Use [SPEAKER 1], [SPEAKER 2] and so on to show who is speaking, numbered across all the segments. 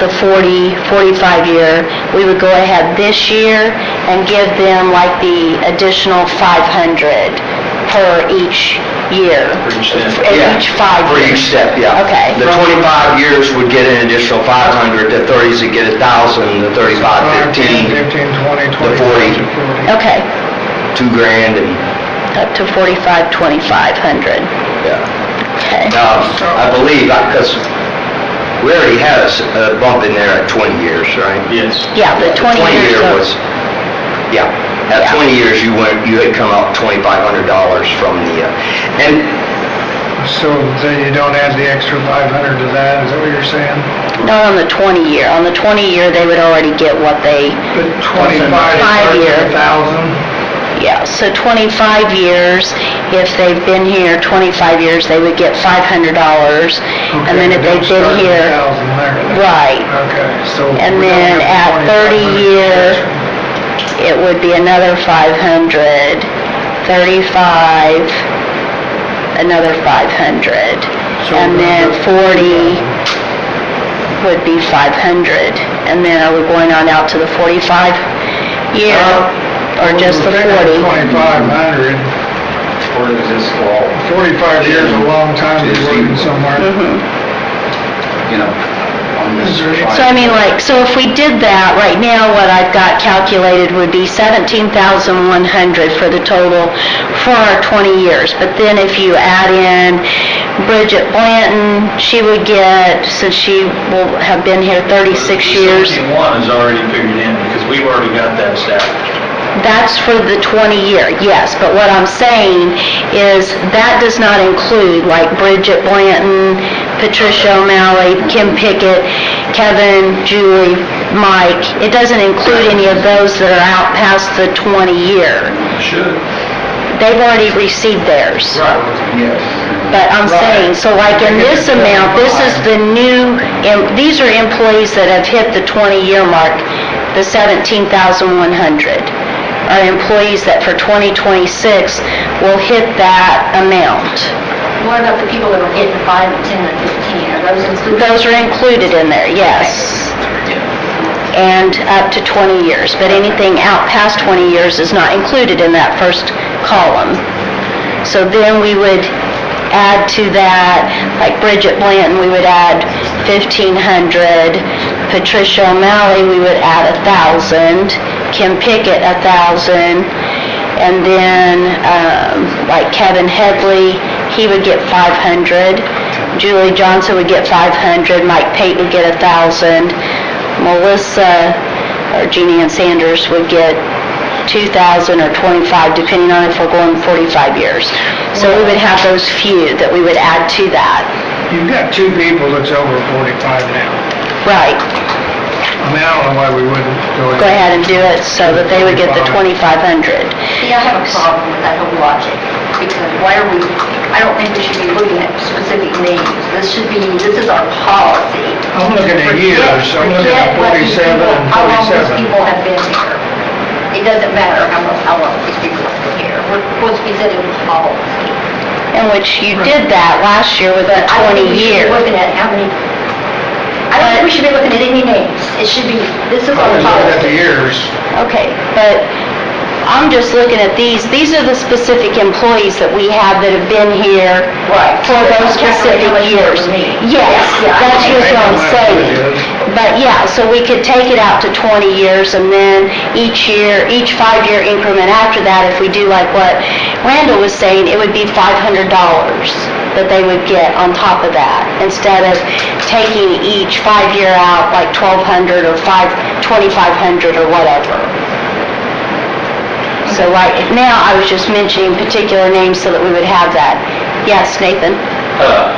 [SPEAKER 1] the 40, 45-year, we would go ahead this year and give them like the additional 500 per each year.
[SPEAKER 2] For each step.
[SPEAKER 1] For each five
[SPEAKER 2] For
[SPEAKER 1] years.
[SPEAKER 2] each step, yeah.
[SPEAKER 1] Okay.
[SPEAKER 2] The 25 years would get an additional 500, the 30s would get 1,000, the 35, 15,
[SPEAKER 3] 15, 20,
[SPEAKER 2] to 40.
[SPEAKER 3] 40.
[SPEAKER 1] Okay,
[SPEAKER 2] 2 grand, and,
[SPEAKER 1] up to 45, 2,500.
[SPEAKER 2] yeah.
[SPEAKER 1] Okay.
[SPEAKER 2] Now, I believe, because we already had a s- a bump in there at 20 years, right?
[SPEAKER 4] Yes.
[SPEAKER 1] Yeah, the 20 years
[SPEAKER 2] year
[SPEAKER 1] of-
[SPEAKER 2] was, yeah, at
[SPEAKER 1] Yeah.
[SPEAKER 2] 20 years, you went, you had come out $2,500 from the, uh, and
[SPEAKER 3] So then you don't add the extra 500 to that, is that what you're saying?
[SPEAKER 1] Not on the 20-year. On the 20-year, they would already get what they,
[SPEAKER 3] But 25 is
[SPEAKER 1] Five
[SPEAKER 3] larger
[SPEAKER 1] year.
[SPEAKER 3] than 1,000?
[SPEAKER 1] yeah, so 25 years, if they've been here 25 years, they would get $500. And then if
[SPEAKER 3] Okay,
[SPEAKER 1] they've been
[SPEAKER 3] don't
[SPEAKER 1] here...
[SPEAKER 3] start at 1,000 there.
[SPEAKER 1] Right.
[SPEAKER 3] Okay, so.
[SPEAKER 1] And
[SPEAKER 3] we don't
[SPEAKER 1] then
[SPEAKER 3] have
[SPEAKER 1] at 30
[SPEAKER 3] 2500
[SPEAKER 1] year- It would be another 500, 35, another 500.
[SPEAKER 3] So
[SPEAKER 1] And
[SPEAKER 3] we're
[SPEAKER 1] then
[SPEAKER 3] gonna go
[SPEAKER 1] 40 would be 500. And then are we going on out to the 45 year
[SPEAKER 3] Uh,
[SPEAKER 1] or just the
[SPEAKER 3] We're figuring
[SPEAKER 1] 40?
[SPEAKER 3] 2,500,
[SPEAKER 4] Or does this fall?
[SPEAKER 3] 45 years is a long time to be working somewhere.
[SPEAKER 1] Mhm.
[SPEAKER 4] You know, on this.
[SPEAKER 3] Is there any-
[SPEAKER 1] So I mean, like, so if we did that, right now, what I've got calculated would be 17,100 for the total for our 20 years. But then if you add in Bridget Blanton, she would get, since she will have been here 36 years,
[SPEAKER 4] Seventy-one is already figured in, because we've already got that established.
[SPEAKER 1] that's for the 20-year, yes. But what I'm saying is that does not include like Bridget Blanton, Patricia O'Malley, Kim Pickett, Kevin, Julie, Mike. It doesn't include any of those that are out past the 20-year.
[SPEAKER 4] Should.
[SPEAKER 1] They've already received theirs.
[SPEAKER 4] Right. Yes.
[SPEAKER 1] But I'm saying, so like in this amount, this is the new, em- these are employees that have hit the 20-year mark, the 17,100 are employees that for 2026 will hit that amount.
[SPEAKER 5] What about the people that were getting five, 10, and 15? Are those included?
[SPEAKER 1] Those are included in there, yes. And up to 20 years, but anything out past 20 years is not included in that first column. So then we would add to that, like Bridget Blanton, we would add 1,500. Patricia O'Malley, we would add 1,000. Kim Pickett, 1,000. And then, um, like Kevin Headley, he would get 500. Julie Johnson would get 500. Mike Pate would get 1,000. Melissa, or Jeannie Ann Sanders would get 2,000 or 25, depending on if we're going 45 years. So we would have those few that we would add to that.
[SPEAKER 3] You've got two people that's over 45 now.
[SPEAKER 1] Right,
[SPEAKER 3] I mean, I don't know why we wouldn't go ahead.
[SPEAKER 1] go ahead and do it so that they would get the 2,500.
[SPEAKER 5] See, I have a problem with that whole logic, because why are we, I don't think we should be looking at specific names. This should be, this is our policy.
[SPEAKER 3] I'm looking at
[SPEAKER 5] Forget-
[SPEAKER 3] years, I'm looking at
[SPEAKER 5] forget what these
[SPEAKER 3] 47 and
[SPEAKER 5] people- How long these
[SPEAKER 3] 47.
[SPEAKER 5] people have been here. It doesn't matter how long, how long these people have been here. We're supposed to be setting a policy.
[SPEAKER 1] In which you did that last year with the
[SPEAKER 5] I don't think
[SPEAKER 1] 20
[SPEAKER 5] we should be
[SPEAKER 1] year.
[SPEAKER 5] looking at how many, I don't think we should be looking at any names. It should be, this is
[SPEAKER 3] I
[SPEAKER 5] our
[SPEAKER 3] was looking at the
[SPEAKER 5] policy.
[SPEAKER 3] years.
[SPEAKER 1] Okay, but I'm just looking at these, these are the specific employees that we have that have been here
[SPEAKER 5] Right.
[SPEAKER 1] for those specific years. Yes,
[SPEAKER 5] Yeah, I
[SPEAKER 1] that's just what I'm
[SPEAKER 3] Last
[SPEAKER 1] saying.
[SPEAKER 3] years.
[SPEAKER 1] But yeah, so we could take it out to 20 years and then each year, each five-year increment after that, if we do like what Randall was saying, it would be $500 that they would get on top of that instead of taking each five-year out like 1,200 or five, 2,500 or whatever. So like now, I was just mentioning particular names so that we would have that. Yes, Nathan?
[SPEAKER 6] Uh,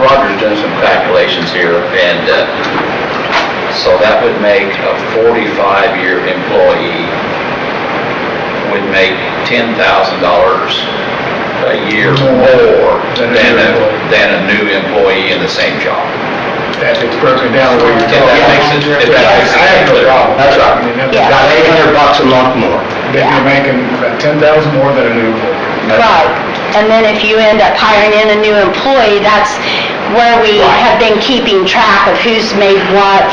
[SPEAKER 6] Roger's done some calculations here, and uh, so that would make a 45-year employee would make $10,000 a year more
[SPEAKER 3] Than a
[SPEAKER 6] than
[SPEAKER 3] new
[SPEAKER 6] a,
[SPEAKER 3] employee.
[SPEAKER 6] than a new employee in the same job.
[SPEAKER 3] That's broken down where you're
[SPEAKER 6] If that makes it, if that makes it clear.
[SPEAKER 2] That's right.
[SPEAKER 1] Yeah.
[SPEAKER 2] About 800 bucks a month more.
[SPEAKER 3] you're making ten thousand more than a new
[SPEAKER 1] Right, and then if you end up hiring in a new employee, that's where we have been keeping track of who's made what